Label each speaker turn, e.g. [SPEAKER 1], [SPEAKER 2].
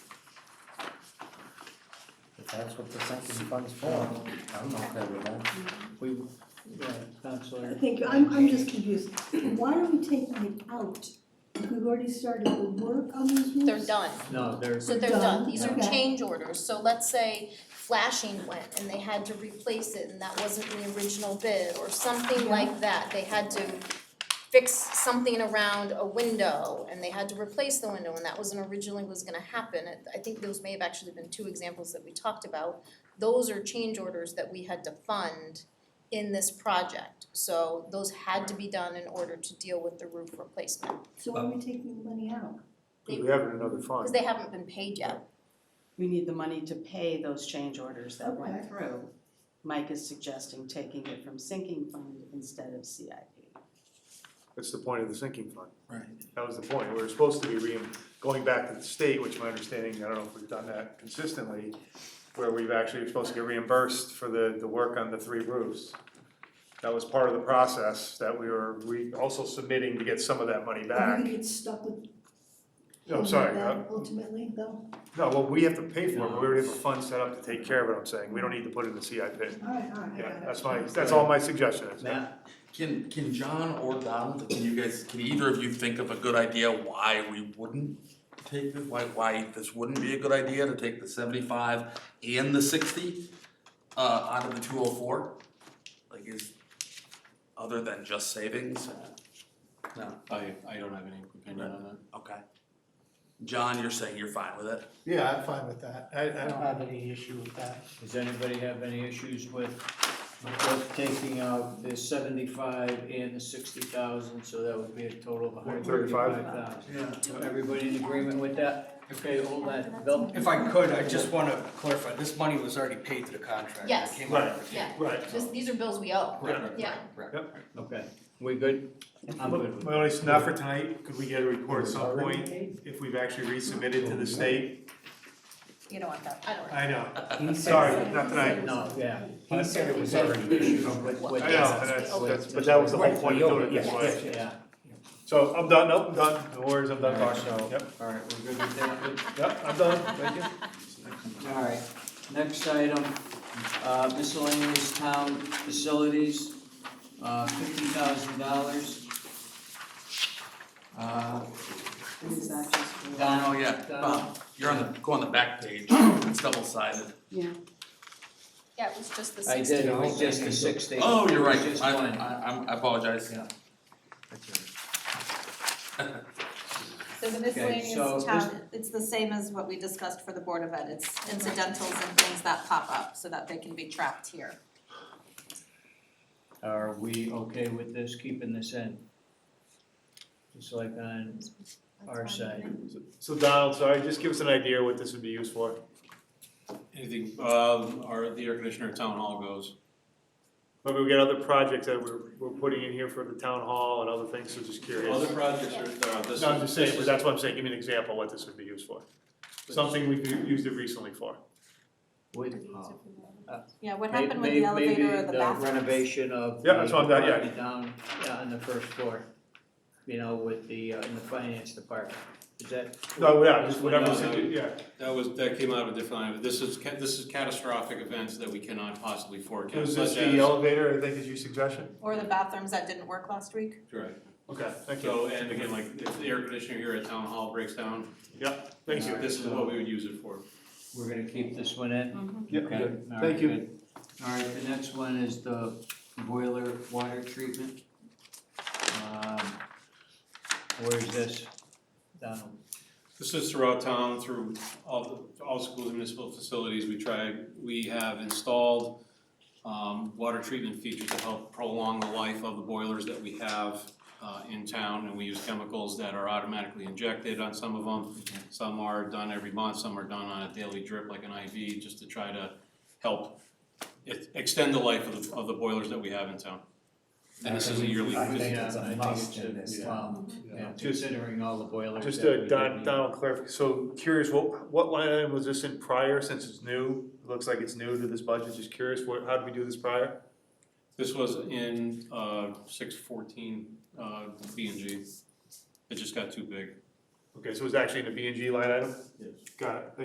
[SPEAKER 1] that's what the sinking fund's for, I'm okay with that.
[SPEAKER 2] We, yeah, Counselor,
[SPEAKER 3] Thank you, I'm, I'm just confused. Why are we taking it out? If we've already started the work on these roofs?
[SPEAKER 4] They're done,
[SPEAKER 2] no, there's,
[SPEAKER 4] so they're done, these are
[SPEAKER 3] Done, okay.
[SPEAKER 4] change orders, so let's say flashing went and they had to replace it and that wasn't the original bid or something
[SPEAKER 3] Yeah.
[SPEAKER 4] like that, they had to fix something around a window and they had to replace the window and that wasn't originally was gonna happen, I- I think those may have actually been two examples that we talked about. Those are change orders that we had to fund in this project, so those had to be done in order to deal with the roof replacement.
[SPEAKER 3] So why are we taking the money out?
[SPEAKER 5] we have it in another fund.
[SPEAKER 4] Cause they haven't been paid yet.
[SPEAKER 6] We need the money to pay those change orders that
[SPEAKER 3] Okay.
[SPEAKER 6] went through. Mike is suggesting taking it from sinking fund instead of CIP.
[SPEAKER 5] That's the point of the sinking fund.
[SPEAKER 2] Right.
[SPEAKER 5] That was the point. We were supposed to be re, going back to the state, which my understanding, I don't know if we've done that consistently, where we've actually, supposed to get reimbursed for the, the work on the three roofs. That was part of the process that we were, we also submitting to get some of that money
[SPEAKER 3] Are we
[SPEAKER 5] back.
[SPEAKER 3] gonna get stuck with
[SPEAKER 5] No, sorry, uh,
[SPEAKER 3] that ultimately though?
[SPEAKER 5] no, well, we have to pay for it, but we already have a fund set up to take care of it, I'm saying. We don't need to put it in the CIP.
[SPEAKER 3] Alright, alright, I
[SPEAKER 5] Yeah,
[SPEAKER 3] got it.
[SPEAKER 5] that's my, that's all my suggestion is.
[SPEAKER 2] Matt,
[SPEAKER 7] Can can John or Donald, can you guys, can either of you think of a good idea why we wouldn't take this, why why this wouldn't be a good idea to take the seventy-five and the sixty uh out of the two oh four? Like is, other than just savings,
[SPEAKER 2] no, I, I don't have any opinion on that.
[SPEAKER 7] okay. John, you're saying you're fine with it?
[SPEAKER 8] Yeah, I'm fine with that. I, I
[SPEAKER 2] don't
[SPEAKER 8] don't have any issue with that.
[SPEAKER 2] Does anybody have any issues with, with us taking out the seventy-five and the sixty thousand, so that would be a total of a hundred thirty-five thousand?
[SPEAKER 5] 135.
[SPEAKER 2] So everybody in agreement with that? Okay, hold that, Bill?
[SPEAKER 9] If I could, I just wanna clarify, this money was already paid to the contractor. It
[SPEAKER 4] Yes.
[SPEAKER 9] came out of the-
[SPEAKER 4] Yeah,
[SPEAKER 5] Right.
[SPEAKER 4] this, these are bills we owe.
[SPEAKER 9] Right, right,
[SPEAKER 4] Yeah.
[SPEAKER 9] right, right.
[SPEAKER 2] Okay, we good? I'm good with
[SPEAKER 5] Well, it's not for tonight, could we get a report at some point if we've actually resubmitted to the state?
[SPEAKER 4] You don't want that. I don't.
[SPEAKER 5] I know,
[SPEAKER 1] He
[SPEAKER 5] sorry,
[SPEAKER 1] said,
[SPEAKER 5] not tonight.
[SPEAKER 2] it. No, yeah.
[SPEAKER 1] he said it was already issued.
[SPEAKER 2] With, with.
[SPEAKER 5] I know, and that's, that's, but that was the whole point of doing it this way.
[SPEAKER 2] Yeah,
[SPEAKER 5] So I'm done, nope, I'm done, no worries, I'm done
[SPEAKER 2] So-
[SPEAKER 5] talking. Yep,
[SPEAKER 2] all right, we're good with that.
[SPEAKER 5] yep, I'm done, thank you.
[SPEAKER 2] All right, next item, uh, miscellaneous town facilities, uh, fifty thousand dollars. Uh,
[SPEAKER 6] And is that just for?
[SPEAKER 2] Don,
[SPEAKER 7] Oh, yeah,
[SPEAKER 2] Don,
[SPEAKER 7] Bob, you're on the, go on the back page, it's double sided.
[SPEAKER 6] Yeah,
[SPEAKER 4] Yeah, it was just the
[SPEAKER 2] I
[SPEAKER 4] sixty.
[SPEAKER 2] did, it was just the sixty.
[SPEAKER 7] Oh, you're right,
[SPEAKER 2] It was just
[SPEAKER 7] I
[SPEAKER 2] one.
[SPEAKER 7] I I'm- I apologize.
[SPEAKER 2] Yeah.
[SPEAKER 10] So the
[SPEAKER 2] so
[SPEAKER 10] miscellaneous
[SPEAKER 2] this-
[SPEAKER 10] town, it's the same as what we discussed for the Board of Ed, it's incidentals and things that pop up so that they can be tracked here.
[SPEAKER 2] Are we okay with this, keeping this in? Just like on our side.
[SPEAKER 5] So Donald, sorry, just give us an idea what this would be used for.
[SPEAKER 11] Anything, um, our, the air conditioner at town hall goes,
[SPEAKER 5] But we got other projects that we're, we're putting in here for the town hall and other things, so just curious.
[SPEAKER 11] other projects are, uh, this
[SPEAKER 5] No, I'm
[SPEAKER 11] is,
[SPEAKER 5] just saying,
[SPEAKER 11] this
[SPEAKER 5] but
[SPEAKER 11] is,
[SPEAKER 5] that's what I'm saying, give me an example of what this would be used for. Something we've used it recently for.
[SPEAKER 2] With,
[SPEAKER 10] Yeah, what
[SPEAKER 2] May-
[SPEAKER 10] happened with
[SPEAKER 2] may-
[SPEAKER 10] the elevator or the bathrooms?
[SPEAKER 2] Maybe the renovation of.
[SPEAKER 5] Yeah, that's what I'm-
[SPEAKER 2] the
[SPEAKER 5] yeah.
[SPEAKER 2] property Down, yeah, on the first floor, you know, with the, uh, in the finance department, is that?
[SPEAKER 5] No, yeah, just
[SPEAKER 2] Just
[SPEAKER 5] whatever,
[SPEAKER 2] whatever.
[SPEAKER 5] yeah,
[SPEAKER 11] that was, that came out of a different line, but this is, ca- this is catastrophic events that we cannot possibly forecast,
[SPEAKER 5] was
[SPEAKER 11] such
[SPEAKER 5] this
[SPEAKER 11] as.
[SPEAKER 5] the E elevator, I think is your suggestion?
[SPEAKER 10] Or the bathrooms that didn't work last week?
[SPEAKER 11] Right,
[SPEAKER 5] Okay, thank you,
[SPEAKER 11] so, and again, like, if the air conditioner here at town hall breaks down,
[SPEAKER 5] thank
[SPEAKER 11] this
[SPEAKER 5] you.
[SPEAKER 11] is what we would use it for.
[SPEAKER 2] We're gonna keep this one in?
[SPEAKER 5] Yep,
[SPEAKER 2] Okay,
[SPEAKER 5] good.
[SPEAKER 2] all
[SPEAKER 5] Thank
[SPEAKER 2] right,
[SPEAKER 5] you.
[SPEAKER 2] good. All right, the next one is the boiler water treatment. Um, where's this, Donald?
[SPEAKER 11] This is throughout town, through all, the- all schools and municipal facilities, we try, we have installed um, water treatment features to help prolong the life of the boilers that we have uh, in town, and we use chemicals that are automatically injected on some of them. Some are done every month, some are done on a daily drip like an IV, just to try to help e- extend the life of the, of the boilers that we have in town. And this is a yearly,
[SPEAKER 1] I
[SPEAKER 11] this-
[SPEAKER 1] think it's a
[SPEAKER 2] Yeah, I think
[SPEAKER 1] must
[SPEAKER 2] it's a-
[SPEAKER 1] in this
[SPEAKER 2] yeah.
[SPEAKER 1] town.
[SPEAKER 2] Yeah,
[SPEAKER 5] Just-
[SPEAKER 2] considering all the boilers
[SPEAKER 5] Just
[SPEAKER 2] that we
[SPEAKER 5] a
[SPEAKER 2] did
[SPEAKER 5] Don,
[SPEAKER 2] need.
[SPEAKER 5] Donald clarif, so curious, what, what line item was this in prior, since it's new? It Looks like it's new to this budget, just curious, what, how did we do this prior?
[SPEAKER 11] This was in uh, six fourteen uh, B and G. It just got too big.
[SPEAKER 5] Okay, so it was actually in the B and G line item?
[SPEAKER 11] Yes.
[SPEAKER 5] Got it,